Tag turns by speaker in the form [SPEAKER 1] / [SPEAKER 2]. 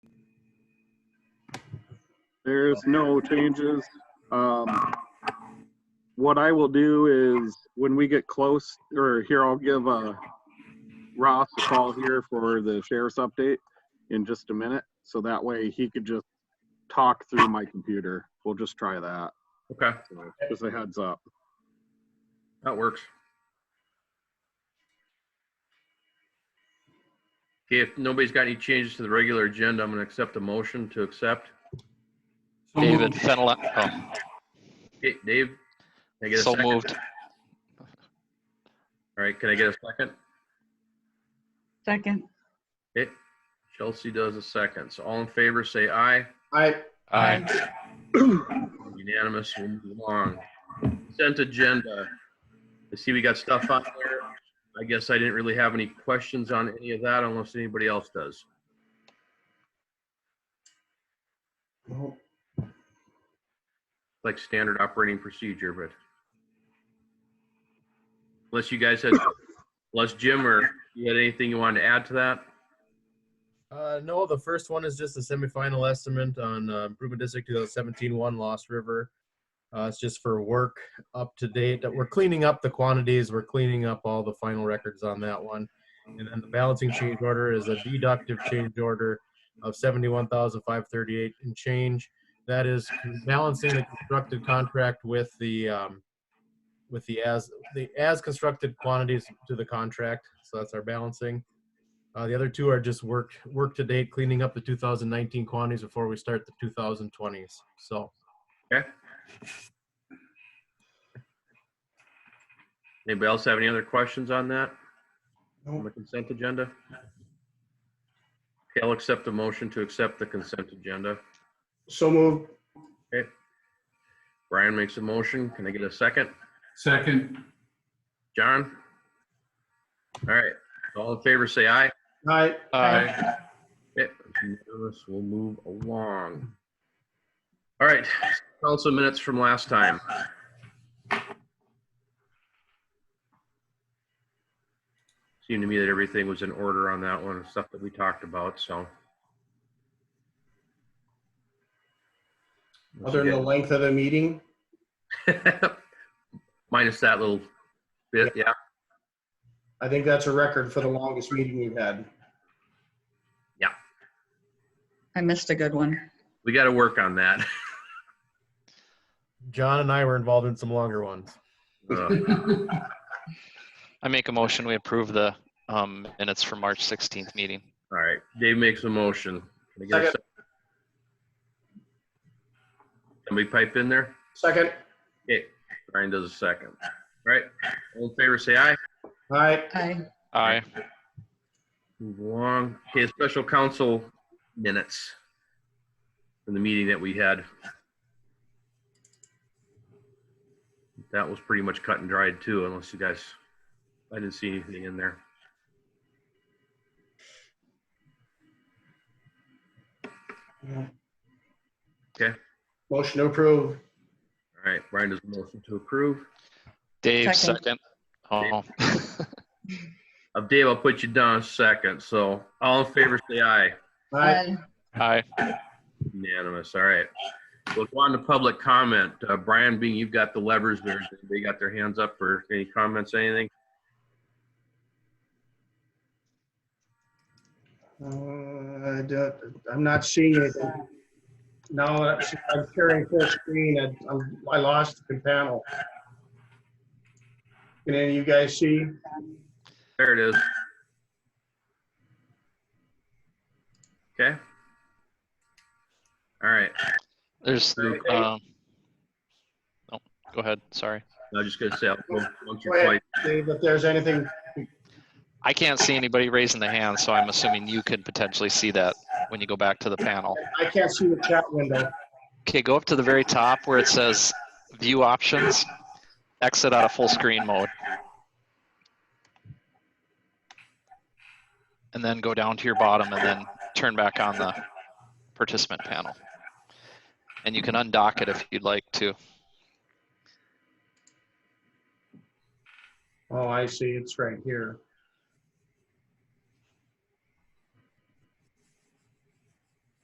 [SPEAKER 1] There's no changes. Um, what I will do is when we get close, or here, I'll give, uh, Ross a call here for the sheriff's update in just a minute. So that way he could just talk through my computer. We'll just try that.
[SPEAKER 2] Okay,
[SPEAKER 1] So Just a heads up.
[SPEAKER 2] that works. Okay, if nobody's got any changes to the regular agenda, I'm gonna accept a motion to accept.
[SPEAKER 3] So
[SPEAKER 4] David
[SPEAKER 3] moved.
[SPEAKER 4] Fennelara,
[SPEAKER 2] Okay, Dave? Can I
[SPEAKER 4] oh,
[SPEAKER 2] get a
[SPEAKER 4] so
[SPEAKER 2] second? All
[SPEAKER 4] moved.
[SPEAKER 2] right, can I get a second?
[SPEAKER 3] Second.
[SPEAKER 2] Okay, Chelsea does a second. So all in favor, say aye.
[SPEAKER 5] I,
[SPEAKER 4] Aye.
[SPEAKER 2] Unanimous, we'll move along. Consent agenda. I see we got stuff on there. I guess I didn't really have any questions on any of that unless anybody else does.
[SPEAKER 5] no,
[SPEAKER 2] Like standard operating procedure, but unless you guys had, unless Jim or you had anything you wanted to add to that?
[SPEAKER 6] Uh, no, the first one is just a semifinal estimate on uh, improvement district 2017 one Lost River. Uh, it's just for work up to date. We're cleaning up the quantities. We're cleaning up all the final records on that one. And then the balancing change order is a deductive change order of 71,538 and change. That is balancing the constructed contract with the um, with the as the as constructed quantities to the contract. So that's our balancing. Uh, the other two are just work work to date, cleaning up the 2019 quantities before we start the 2020s. So
[SPEAKER 2] Anybody else have any other questions on that? On
[SPEAKER 5] no,
[SPEAKER 2] the consent agenda? Okay, I'll accept the motion to accept the consent agenda.
[SPEAKER 5] so moved.
[SPEAKER 2] Brian makes a motion. Can I get a second?
[SPEAKER 3] Second.
[SPEAKER 2] John? All right, all in favor, say aye.
[SPEAKER 5] I,
[SPEAKER 4] Aye.
[SPEAKER 2] Yep, it's unanimous. We'll move along. All right, council minutes from last time. Seemed to me that everything was in order on that one, stuff that we talked about, so.
[SPEAKER 5] other than the length of the meeting,
[SPEAKER 2] Minus that little bit, yeah.
[SPEAKER 5] I think that's a record for the longest meeting we've had.
[SPEAKER 7] I missed a good one.
[SPEAKER 2] We got to work on that.
[SPEAKER 6] John and I were involved in some longer ones.
[SPEAKER 2] Uh,
[SPEAKER 4] I make a motion, we approve the um, minutes for March 16th meeting.
[SPEAKER 2] All right, Dave makes a motion. Can I get a
[SPEAKER 5] Second.
[SPEAKER 2] sec- Somebody pipe in there?
[SPEAKER 5] Second,
[SPEAKER 2] Okay, Brian does a second. All right, all in favor, say aye.
[SPEAKER 5] I,
[SPEAKER 7] I,
[SPEAKER 4] Aye.
[SPEAKER 2] Move along. Okay, special counsel minutes from the meeting that we had. That was pretty much cut and dried too, unless you guys, I didn't see anything in there.
[SPEAKER 5] motion to approve.
[SPEAKER 2] All right, Brian does a motion to approve.
[SPEAKER 4] Dave,
[SPEAKER 7] Second.
[SPEAKER 4] second. Oh,
[SPEAKER 2] Uh, Dave, I'll put you down second, so all in favor, say aye.
[SPEAKER 5] I,
[SPEAKER 7] I,
[SPEAKER 4] aye.
[SPEAKER 2] Unanimous, all right. We'll go on to public comment. Uh, Brian, being you've got the levers there, they got their hands up for any comments, anything?
[SPEAKER 5] uh, d- I'm not seeing anything. Now that I'm carrying full screen, I, I'm- I lost the panel. Can any of you guys see?
[SPEAKER 2] There it is. Okay. All right,
[SPEAKER 4] There's, um, no, go ahead, sorry.
[SPEAKER 2] I was just gonna say, I'll go once
[SPEAKER 5] Go
[SPEAKER 2] or twice.
[SPEAKER 5] ahead, Dave, if there's anything,
[SPEAKER 4] I can't see anybody raising the hand, so I'm assuming you could potentially see that when you go back to the panel.
[SPEAKER 5] I can't see the chat window.
[SPEAKER 4] Okay, go up to the very top where it says View Options, exit out of full screen mode. And then go down to your bottom and then turn back on the participant panel. And you can undock it if you'd like to.
[SPEAKER 5] Oh, I see, it's right here.